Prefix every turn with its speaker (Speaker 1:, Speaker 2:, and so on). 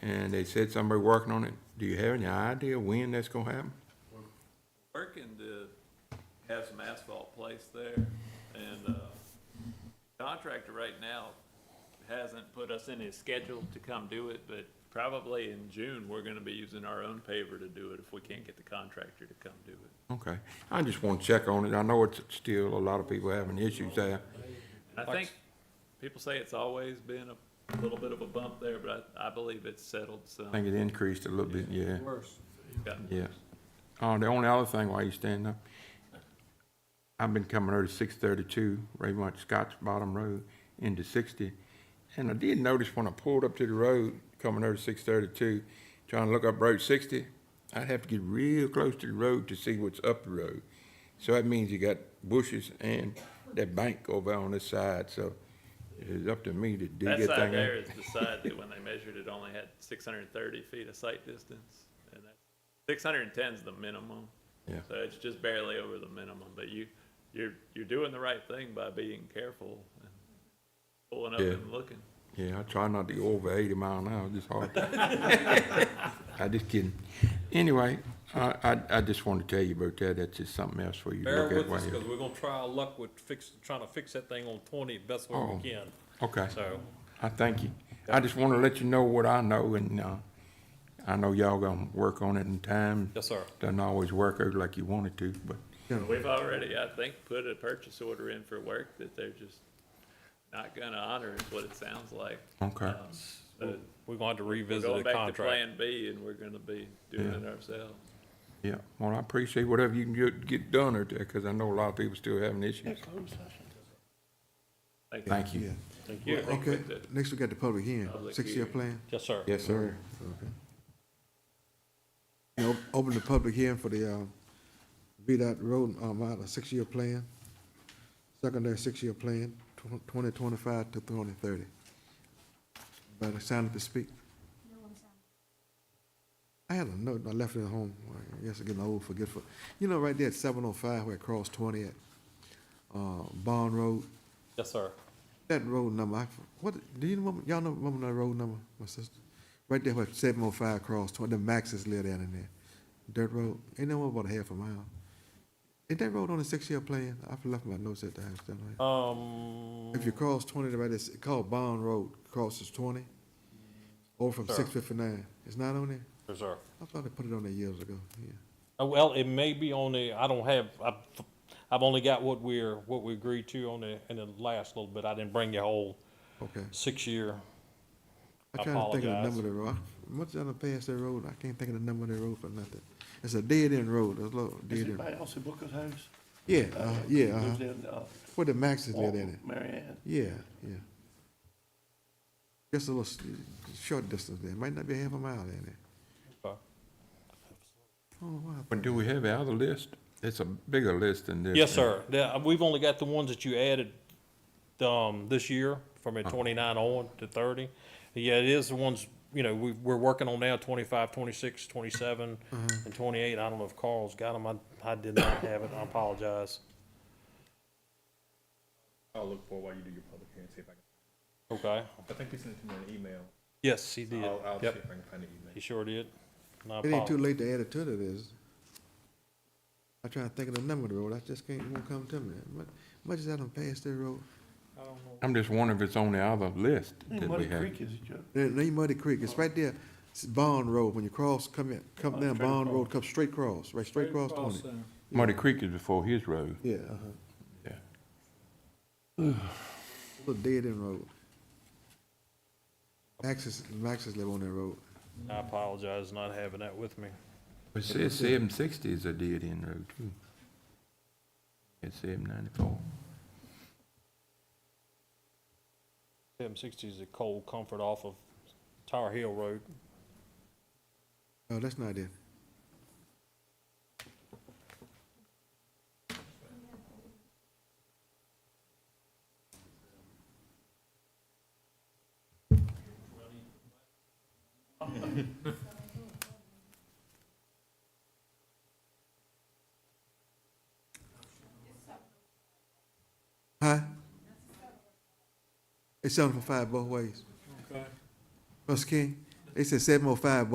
Speaker 1: and they said somebody working on it. Do you have any idea when that's gonna happen?
Speaker 2: Working to have some asphalt placed there, and, uh, contractor right now hasn't put us in his schedule to come do it, but probably in June, we're gonna be using our own paver to do it if we can't get the contractor to come do it.
Speaker 1: Okay, I just wanna check on it. I know it's still a lot of people having issues there.
Speaker 2: I think, people say it's always been a little bit of a bump there, but I, I believe it's settled
Speaker 1: I
Speaker 2: some.
Speaker 1: think it increased a little bit, yeah,
Speaker 3: Worse.
Speaker 2: Gotten
Speaker 1: yeah. Uh, the only other thing while you stand up, I've been coming over to six thirty-two, Raymond Scott's Bottom Road into sixty. And I did notice when I pulled up to the road, coming over to six thirty-two, trying to look up Road sixty, I'd have to get real close to the road to see what's up the road. So that means you got bushes and that bank over on this side, so it's up to me to dig that
Speaker 2: That
Speaker 1: thing out.
Speaker 2: side there is the side that when they measured it only had six hundred and thirty feet of sight distance. And that, six hundred and ten's the minimum.
Speaker 1: Yeah.
Speaker 2: So it's just barely over the minimum, but you, you're, you're doing the right thing by being careful and pulling up
Speaker 1: Yeah.
Speaker 2: and looking.
Speaker 1: Yeah, I try not to go over eighty mile an hour, just hard. I just kidding. Anyway, I, I, I just wanted to tell you about that, that's just something else for you to
Speaker 3: Bear
Speaker 1: look at.
Speaker 3: with us,
Speaker 1: while
Speaker 3: because
Speaker 1: you-
Speaker 3: we're gonna try our luck with fix, trying to fix that thing on twenty, best way
Speaker 1: Oh.
Speaker 3: we can,
Speaker 1: Okay,
Speaker 3: so.
Speaker 1: I thank you. I just wanna let you know what I know, and, uh, I know y'all gonna work on it in time.
Speaker 3: Yes, sir.
Speaker 1: Doesn't always work out like you want it to, but,
Speaker 2: We've already, I think, put a purchase order in for work that they're just not gonna honor is what it sounds like.
Speaker 1: okay,
Speaker 2: Um, But
Speaker 3: We're gonna have to
Speaker 2: we're
Speaker 3: revisit
Speaker 2: going
Speaker 3: the
Speaker 2: back to
Speaker 3: contract.
Speaker 2: Plan B and we're gonna be doing
Speaker 1: Yeah.
Speaker 2: it ourselves.
Speaker 1: yeah. Well, I appreciate whatever you can get, get done out there, cause I know a lot of people still having issues. Thank you.
Speaker 4: Yeah,
Speaker 3: Thank you.
Speaker 4: okay,
Speaker 2: with the-
Speaker 4: next we got the public hearing,
Speaker 2: Public
Speaker 4: six-year
Speaker 2: hearing.
Speaker 4: plan.
Speaker 3: Yes, sir.
Speaker 1: Yes, sir.
Speaker 4: Okay. You know, open the public hearing for the, um, VDOT road, um, out, a six-year plan, secondary six-year plan, tw- twenty twenty-five to twenty thirty. Anybody sign up to speak? I had a note, I left it at home, I guess I'm getting old, forgetful. You know, right there at seven oh five where it crossed twenty at, uh, Bond Road,
Speaker 3: Yes, sir.
Speaker 4: that road number, I, what, do you remember, y'all know, remember that road number, my sister? Right there where seven oh five cross, toward the Maxis live down in there. Dirt road, ain't no more about a half a mile. Is that road on a six-year plan? I've left my notes at the house, don't
Speaker 3: Um,
Speaker 4: I? If you cross twenty, right, it's called Bond Road, crosses twenty, over from
Speaker 3: Sure.
Speaker 4: six fifty-nine. It's not on there?
Speaker 3: yes, sir.
Speaker 4: I thought they put it on there years ago, yeah.
Speaker 3: Uh, Well, it may be on the, I don't have, I've, I've only got what we're, what we agreed to on the, in the last little bit. I didn't bring your whole
Speaker 4: Okay.
Speaker 3: six-year.
Speaker 4: I'm trying to think of the
Speaker 3: Apologize.
Speaker 4: number of the road. Much other past that road, I can't think of the number of the road for nothing. It's a dead-end road, It's a little
Speaker 5: Is
Speaker 4: dead-end.
Speaker 5: anybody else in Booker's house?
Speaker 4: Yeah, uh, yeah, uh-huh.
Speaker 5: Lives in, uh,
Speaker 4: Where the Maxes live at it.
Speaker 5: Mary Ann.
Speaker 4: Yeah, yeah. Just a little s- short distance there. Might not be half a mile in there.
Speaker 3: Okay.
Speaker 4: Oh, wow.
Speaker 1: But do we have the other list? It's a bigger list than this.
Speaker 3: Yes, sir. The- we've only got the ones that you added, um, this year, from
Speaker 4: Uh-huh.
Speaker 3: a twenty-nine on to thirty. Yeah, it is the ones, you know, we, we're working on now, 25, 26, 27,
Speaker 4: Mm-hmm.
Speaker 3: and twenty-eight. I don't know if Carl's got them. I, I did not have it. I apologize.
Speaker 6: I'll look for while you do your public hearing, see if I can,
Speaker 3: Okay.
Speaker 6: I think he sent it to me in an email.
Speaker 3: Yes, he did.
Speaker 6: I'll, I'll see if
Speaker 3: Yep,
Speaker 6: I can find the
Speaker 3: he
Speaker 6: email.
Speaker 3: sure did. And I
Speaker 4: It ain't too
Speaker 3: apologize.
Speaker 4: late to add it to it, is it? I'm trying to think of the number of the road. I just can't, it won't come to me. Much, much as I done passed that road.
Speaker 1: I'm just wondering if it's on the other list that we
Speaker 5: Mm, Muddy
Speaker 1: have.
Speaker 5: Creek is it, Joe?
Speaker 4: There, there ain't Muddy Creek. It's right there. It's Bond Road. When you cross, come in, come down Bond Road, come Oh, straight across, right, straight across twenty.
Speaker 1: Muddy Creek is before his road.
Speaker 4: Yeah, uh-huh.
Speaker 1: Yeah.
Speaker 4: Little dead-end road. Maxes, Maxes live on that road.
Speaker 3: I apologize not having that with me.
Speaker 1: It says seven sixty is a dead end road too. It's seven ninety-four.
Speaker 3: Seven sixty is a cold comfort off of Tower Hill Road.
Speaker 4: Oh, that's not it. Huh? oh It's seven for five both ways. Russ King, They said seven oh five